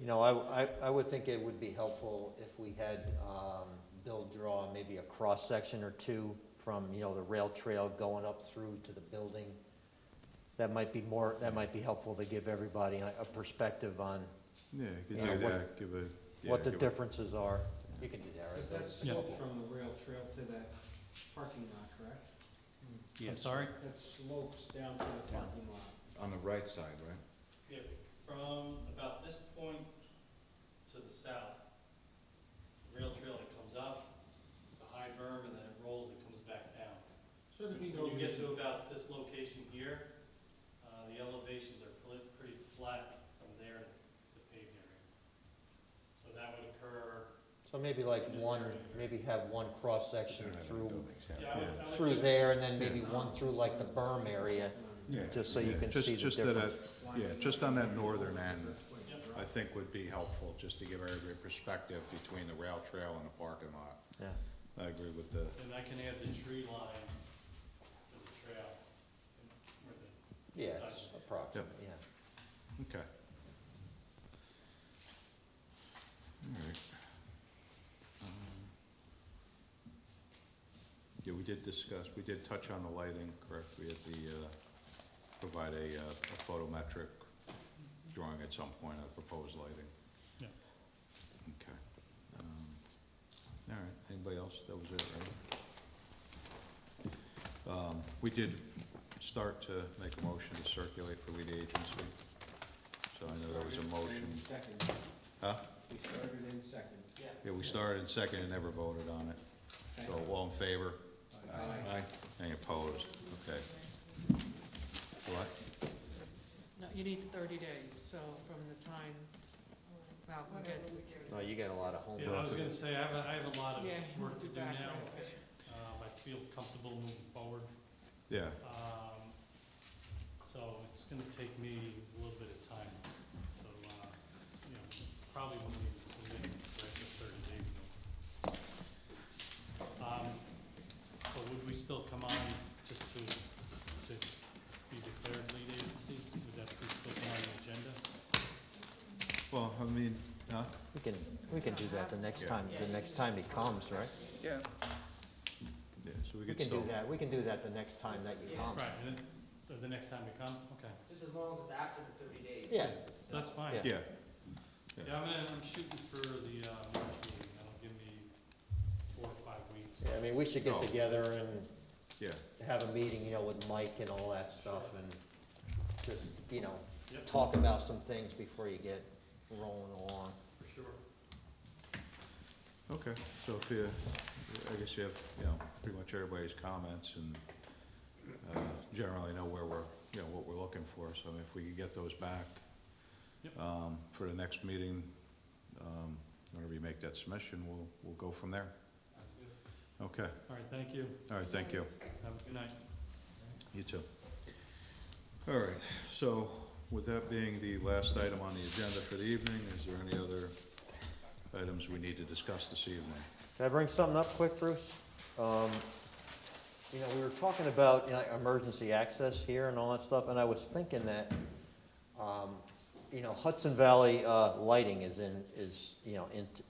You know, I, I, I would think it would be helpful if we had, um, Bill draw maybe a cross-section or two from, you know, the rail trail going up through to the building. That might be more, that might be helpful to give everybody a, a perspective on Yeah, you Yeah, could do what- that, give a. yeah, what the give a- differences are. You can do that, right? Because that Bill? slopes from the rail trail to that parking lot, correct? I'm sorry? That slopes down to the parking lot. On the right side, right? Yeah, from about this point to the south, rail trail that comes up, the high berm, and then it rolls and comes back down. So there'd be no When you get reason, to about this location here, uh, the elevations are pl- pretty flat from there to paved area. So that would occur, So maybe like one, maybe have one cross-section through, yeah, I would- I would through think- there, and then maybe Yeah. one through like the berm area, just so you Yeah, can just- see the just that, uh, difference. Yeah, just on that northern end, Yep. I think would be helpful, just to give everybody perspective between the rail trail and the parking lot. Yeah. I agree with the, And I can add the tree line for the trail, and where the Yeah, it's approximate, yeah. okay. All right. Um, Yeah, we did discuss, we did touch on the lighting, correct? We had the, uh, provide a, uh, a photometric drawing at some point of proposed lighting. Yeah. Okay. Um, All right, anybody else? That was it, right? Um, we did start to make a motion to circulate for lead agency. So I know there was a motion. We started in second. Huh? We started in second. Yeah, we started in second and never voted on it. So all in favor? Aye. Aye. Any opposed? Okay. What? No, you need thirty days, so from the time Malcolm gets it. No, you got a lot of homework. Yeah, I was gonna say, I have, a I have a lot of Yeah, work to be do back now. right away. Um, I feel comfortable moving forward. Yeah, Um, so it's gonna take me a little bit of time. So, uh, you know, probably won't be submitted for after thirty days. though. Um, but would we still come on just to, to be declared lead agency? Would that be still come on the agenda? well, I mean, huh? We can, we can do that the next Yeah. time, the next time he comes, right? Yeah. Yeah, so we We could can still. do that, we can do that the next time that you come. Right, and then, the- the next time we come, okay. Just as long as it's after the thirty days. Yeah, So That's fine. Yeah. Yeah, Yeah, I'm gonna, I'm shooting for the, uh, March meeting, that'll give me four or five weeks. Yeah, I mean, we should get No. together and yeah, have a meeting, you know, with Mike and all that stuff and just, you know, Yep. talk about some things before you get rolling along. For sure. okay. So if you, I guess you have, you know, pretty much everybody's comments and uh, generally know where we're, you know, what we're looking for. So if we could get those back Yep. um, for the next meeting, um, whenever you make that submission, we'll, we'll go from there. Sounds good. Okay, All right, thank you, all right, thank you. have a good night. You too. All right, so with that being the last item on the agenda for the evening, is there any other items we need to discuss this evening? Can I bring something up quick, Bruce? Um, You know, we were talking about you know, emergency access here and all that stuff, and I was thinking that, um, you know, Hudson Valley uh, Lighting is in, is, you know, into,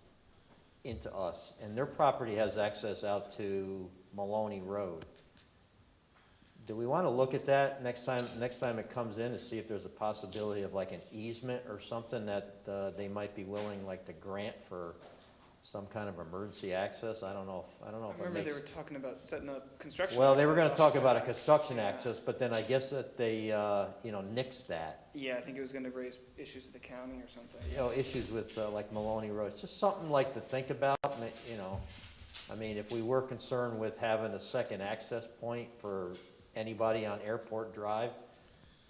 into us, and their property has access out to Maloney Road. Do we want to look at that next time, next time it comes in, to see if there's a possibility of like an easement or something that uh, they might be willing, like the grant for some kind of emergency access? I don't know if, I don't know I if it remember they makes- were talking about setting up construction. well, they were gonna access. talk about a construction Yeah. access, but then I guess that they, uh, you know, nixed that. Yeah, I think it was gonna raise issues with the county or something. You know, issues with, uh, like Maloney Road, It's just something like to think about, ma- you know. I mean, if we were concerned with having a second access point for anybody on Airport Drive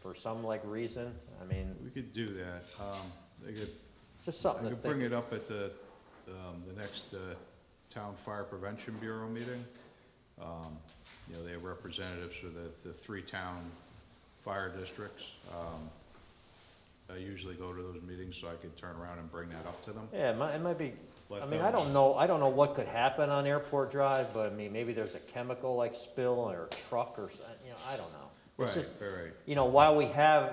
for some like reason, I mean, We could do that. Um, I could, just I something to could bring think. it up at the, um, the next, uh, Town Fire Prevention Bureau meeting. Um, you know, they have representatives for the, the three town fire districts. Um, I usually go to those meetings, so I could turn around and bring that up to them. Yeah, it might, it might be, Let I mean, I them- don't know, I don't know what could happen on Airport Drive, but I mean, maybe there's a chemical like spill or a truck or, s- you know, I don't know. It's Right, just- right, right. You know, while we have